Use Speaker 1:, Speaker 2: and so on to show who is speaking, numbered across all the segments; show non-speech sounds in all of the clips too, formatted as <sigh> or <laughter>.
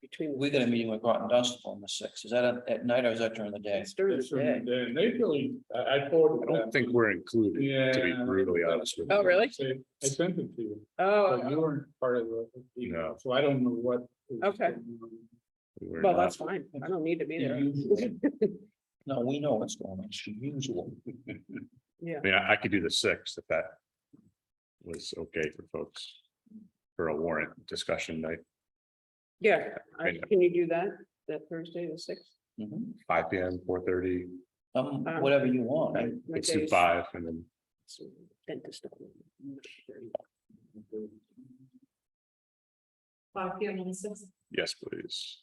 Speaker 1: between.
Speaker 2: We got a meeting with Groton Dunstable on the sixth. Is that at- at night or is that during
Speaker 1: <laughs>
Speaker 2: the day?
Speaker 1: It's during the
Speaker 3: That's
Speaker 1: day.
Speaker 3: right. And they really, I, I thought.
Speaker 4: I don't think we're included,
Speaker 3: Yeah.
Speaker 4: to be brutally honest with you.
Speaker 1: Oh, really?
Speaker 3: I I sent it to you, but you
Speaker 1: Oh,
Speaker 3: weren't part of the.
Speaker 4: No.
Speaker 3: So I don't know what. is
Speaker 1: Okay.
Speaker 3: going on.
Speaker 4: We were
Speaker 1: well,
Speaker 4: not.
Speaker 1: that's fine. I don't need to be there.
Speaker 2: No, we know what's going on. It's usual.
Speaker 1: Yeah,
Speaker 4: I mean, I I could do the sixth if that was okay for folks for a warrant discussion night,
Speaker 1: yeah. I- Can you do that, that Thursday, the sixth?
Speaker 2: Mhm.
Speaker 4: five P M, four thirty,
Speaker 2: Um,
Speaker 1: Um,
Speaker 2: whatever you want. I-
Speaker 4: let's do five and then
Speaker 1: Dentist. appointment.
Speaker 5: Five P M on the sixth.
Speaker 4: yes, please.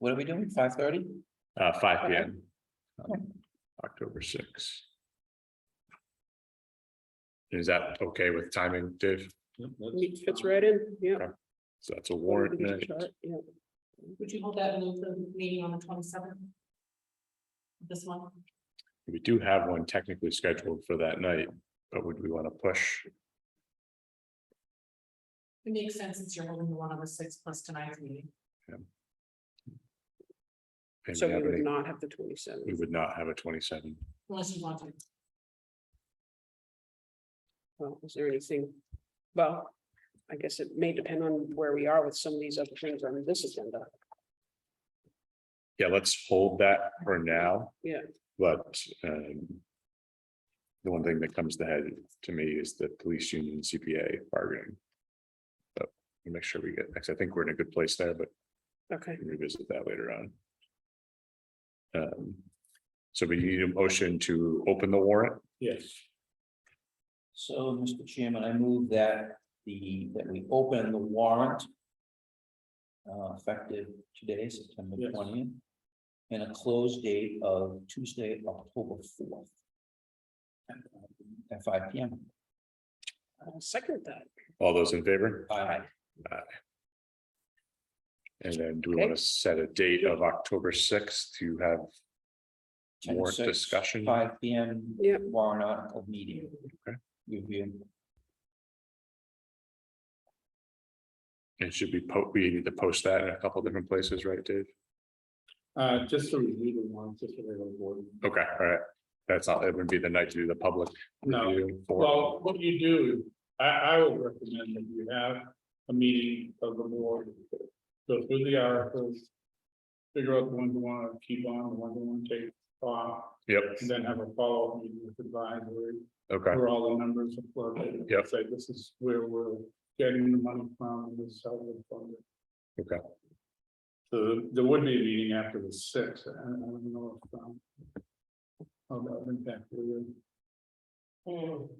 Speaker 2: What are we doing? Five thirty?
Speaker 4: Uh, five P
Speaker 1: Okay.
Speaker 4: M. Um, October sixth. Is that okay with timing, Dave?
Speaker 3: Yep, that's-
Speaker 1: It Fits right in, yeah.
Speaker 4: So that's a warrant night.
Speaker 1: Yeah.
Speaker 5: Would you hold that and move the meeting on the twenty seventh? This one,
Speaker 4: We do have one technically scheduled for that night, but would we want to push?
Speaker 5: it makes sense since you're holding the one on the sixth plus tonight's meeting.
Speaker 4: And
Speaker 1: So
Speaker 4: we
Speaker 1: we
Speaker 4: have
Speaker 1: would
Speaker 4: any-
Speaker 1: not have the
Speaker 4: We
Speaker 1: twenty-seventh.
Speaker 4: would not have a twenty-seven.
Speaker 5: Unless you want to,
Speaker 1: Well, is there anything? Well, I guess it may depend on where we are with some of these other things on this agenda.
Speaker 4: Yeah, let's hold that for now.
Speaker 1: Yeah.
Speaker 4: But um. The one thing that comes to head to me is the police union CPA bargaining. But we'll make sure we get, because I think we're in a good place there, but
Speaker 1: Okay,
Speaker 4: we can revisit that later on. Um, so we need a motion to open the warrant.
Speaker 3: Yes.
Speaker 2: So, Mr. Chairman, I move that the, that we open the warrant. Uh, effective today, September
Speaker 3: Yes.
Speaker 2: twentieth. And a close date of Tuesday, October fourth. At five P M.
Speaker 1: I'll Uh, second that.
Speaker 4: All those in favor?
Speaker 2: Aye.
Speaker 4: And then do we want
Speaker 1: Okay.
Speaker 4: to set a date of October sixth to have warrant discussion?
Speaker 2: Five P M.
Speaker 1: Yep.
Speaker 2: Warrant article meeting.
Speaker 4: Okay.
Speaker 2: Review.
Speaker 4: And should be po, we need to post that in a couple different places, right, Dave?
Speaker 3: Uh, just to review the ones, just to the board.
Speaker 4: Okay, all right. That's not, it would be the night to do the public.
Speaker 3: No.
Speaker 4: review for-
Speaker 3: Well, what you do, is, I, I would recommend that you have a meeting of the board. Go through the articles. Figure out the ones you want to keep on, the ones you want to take off,
Speaker 4: Yep,
Speaker 3: and then have a follow-up meeting with advisory.
Speaker 4: okay,
Speaker 3: Where all the numbers are floated.
Speaker 4: Yep.
Speaker 3: Say this is where we're getting the money from, and this is how we're funded.
Speaker 4: okay.
Speaker 3: So there would be a meeting after the sixth, I I don't know if. um, How that would impact you.
Speaker 4: So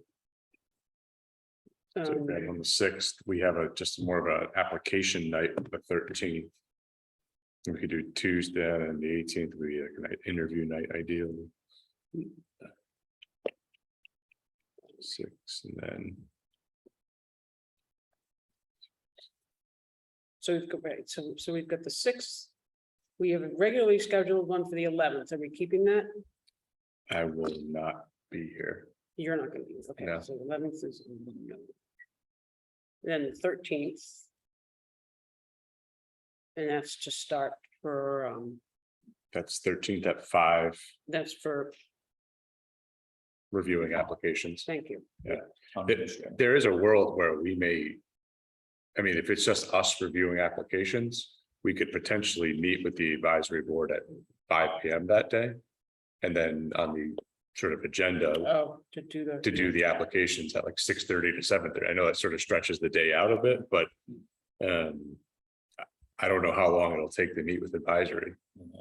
Speaker 1: Um,
Speaker 4: then on the sixth, we have a, just more of an application night, the thirteenth. We could do Tuesday and the eighteenth would be like an interview night ideally. Six and then,
Speaker 1: So we've got, right, so, so we've got the sixth. We have a regularly scheduled one for the eleventh. Are we keeping that?
Speaker 4: I will not be here.
Speaker 1: You're not gonna be, okay,
Speaker 4: No.
Speaker 1: so eleventh is. no. Then thirteenth. And that's to start for, um,
Speaker 4: That's thirteenth at five,
Speaker 1: that's for,
Speaker 4: reviewing applications.
Speaker 1: thank you.
Speaker 4: It- There is a world where we may. I mean, if it's just us reviewing applications, we could potentially meet with the advisory board at five P M that day. And then on the sort of agenda
Speaker 1: Oh, to do the.
Speaker 4: to do the applications at like six thirty to seven thirty. I know that sort of stretches the day out a bit, but. Um. I- I don't know how long it'll take to meet with advisory.
Speaker 1: Yeah.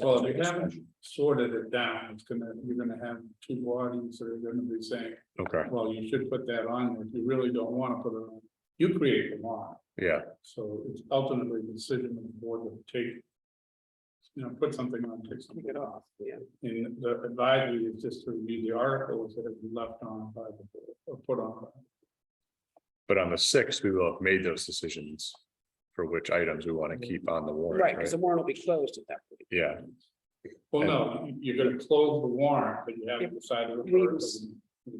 Speaker 3: Well, we haven't sorted it down, it's gonna, you're gonna have two bodies that are gonna be saying,
Speaker 4: Okay,
Speaker 3: well, you should put that on, if you really don't wanna put it on. You create the law,
Speaker 4: yeah,
Speaker 3: so it's ultimately the decision of the board will take. You know, put something on, take
Speaker 1: Take
Speaker 3: something
Speaker 1: it
Speaker 3: off,
Speaker 1: off, yeah.
Speaker 3: and the advisory is just to review the articles that have been left on by the board, or put on. by
Speaker 4: but on the sixth, we will have made those decisions. For which items we want to keep on the
Speaker 1: Right, because
Speaker 4: warrant, right?
Speaker 1: the warrant will be closed at that point.
Speaker 4: Yeah,
Speaker 3: Well, no, you're gonna close the warrant, but you haven't decided. what article.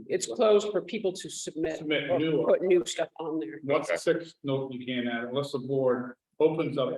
Speaker 1: It's closed for people to submit,
Speaker 3: Submit
Speaker 1: or
Speaker 3: new
Speaker 1: put new stuff on there.
Speaker 3: What's the sixth note you can add unless the board opens up